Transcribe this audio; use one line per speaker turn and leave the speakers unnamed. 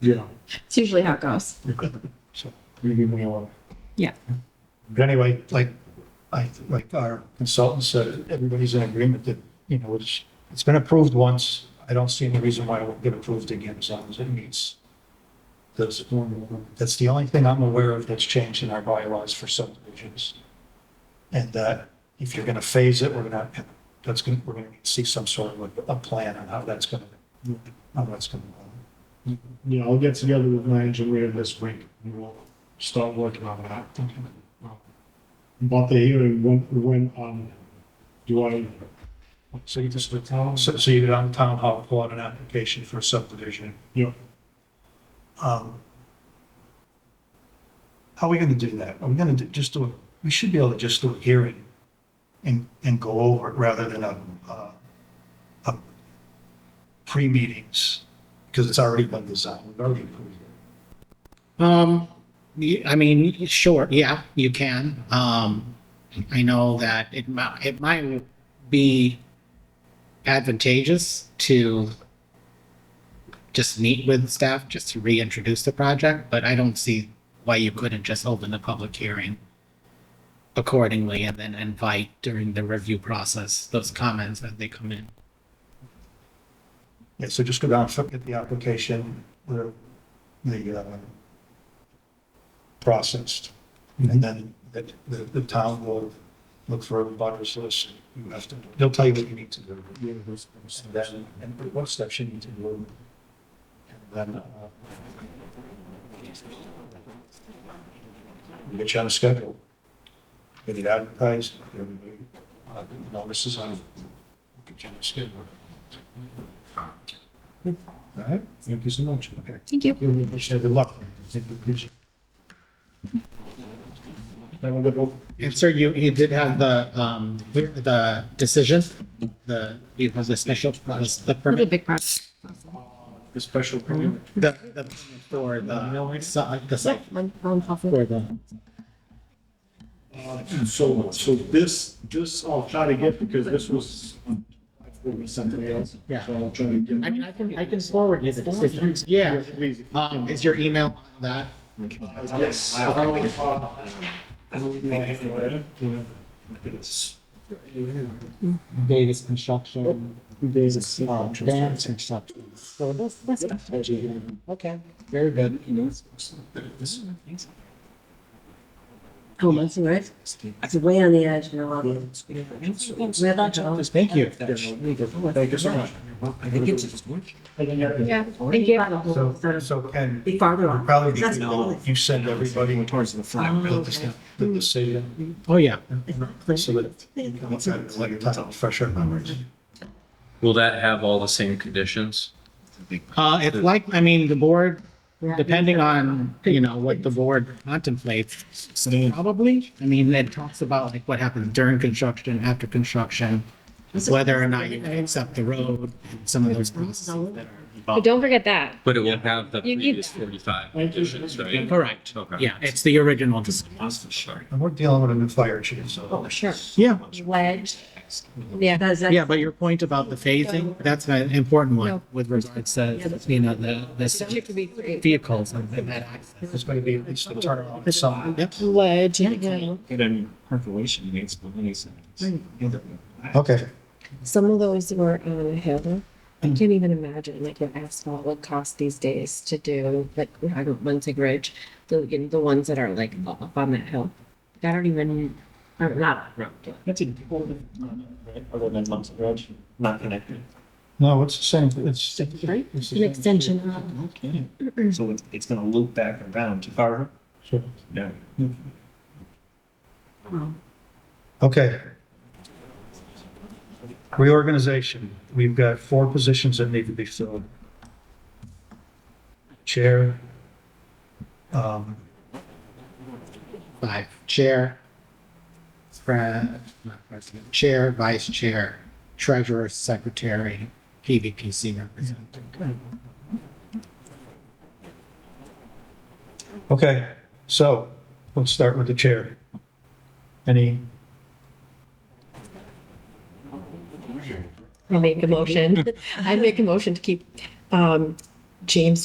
Yeah.
It's usually how it goes.
So leaving me alone.
Yeah.
But anyway, like, I, like our consultant said, everybody's in agreement that, you know, it's, it's been approved once. I don't see any reason why it won't get approved again as long as it meets those. That's the only thing I'm aware of that's changed in our bylaws for subdivisions. And that if you're gonna phase it, we're gonna, that's gonna, we're gonna see some sort of a, a plan on how that's gonna, how that's gonna.
Yeah, I'll get together with my engineer this week and we'll start working on that. About the hearing, when, when, um, do I,
So you just, so so you did on town hall, pull out an application for subdivision.
you know,
Um, How are we gonna do that? Are we gonna do- just do, a- we should be able to just do a hearing and, and go over it rather than a, uh, a pre-meetings, because it's already been designed, we've already approved it.
Um, y- I mean, sure, yeah, you can. Um, I know that it might, it might be advantageous to just meet with staff, just to reintroduce the project, but I don't see why you couldn't just open the public hearing accordingly and then invite during the review process, those comments as they come in.
Yeah, so just go down, look at the application, the, the, uh, processed. And
Mm-hmm.
then the, the, the town will look for a butters list, you have to, they'll tell you what you need to do. And then, and what steps you need to do. And then, uh, get you on a schedule. Get it advertised, everybody, uh, notices on, get you on a schedule. All right, thank you so much. Okay.
Thank you.
You wish you good luck. I want to go.
And sir, you, you did have the, um, the decision, the, it was the special, uh, the
Really
permit,
big project.
The special permit.
the, the, for the, site- the site,
One- one coffee.
for the,
so, so this, this I'll try to get because this was, I forward something else.
Yeah.
So I'll try to get.
I mean, I can, I can forward you the decision. Yeah,
Please.
um, is your email on that?
Yes.
Davis Construction. Davis. Dance Construction. So this, this. Okay, very good.
Oh, that's all right. It's way on the edge now. Where that goes.
Thank you.
Thank you so much.
Yeah, thank you.
So, so Ken,
Be farther
it'd
on.
probably be,
That's Oh,
you know, you send everybody towards the
okay.
The decision,
Oh, yeah.
so that you can look at it like a time, fresh our memories.
Will that have all the same conditions?
Uh, it's like, I mean, the board, depending on, you know, what the board contemplates, probably. I mean, it talks about like what happens during construction, after construction, whether or not you accept the road, and some of those processes that are
But
involved.
Oh, don't forget that.
But it will have the
You need
previous
that.
forty-five conditions, right?
Correct.
Okay.
Yeah, it's the original decision.
And we're dealing with a new fire chief, so.
Sure.
Yeah,
Ledge. Yeah.
Does that-
yeah, but your point about the phasing, that's an important one with regards to, you know, the,
You have
the
to be three.
vehicles and that access.
It's going to be at least a turnaround in some.
Yep.
Ledge.
Yeah, yeah.
Get any percolation needs, but when he's.
Okay.
Some of those were on a hill. I
Mm.
can't even imagine like what asphalt would cost these days to do, like Munzig Ridge, the, you know, the ones that are like up on that hill. I don't even, or not up,
That's in people, right, other than Monster Grudge, not connected.
No, it's the same, it's.
right?
it's
An
the same.
extension up.
Okay. So it's, it's gonna loop back around to Carver?
Sure.
Yeah.
Okay. Reorganization. We've got four positions that need to be filled. Chair. Um,
Five, chair, pre- not president, chair, vice chair, treasurer, secretary, PVPC representative.
Okay, so let's start with the chair. Any,
I make a motion. I make a motion to keep, um, James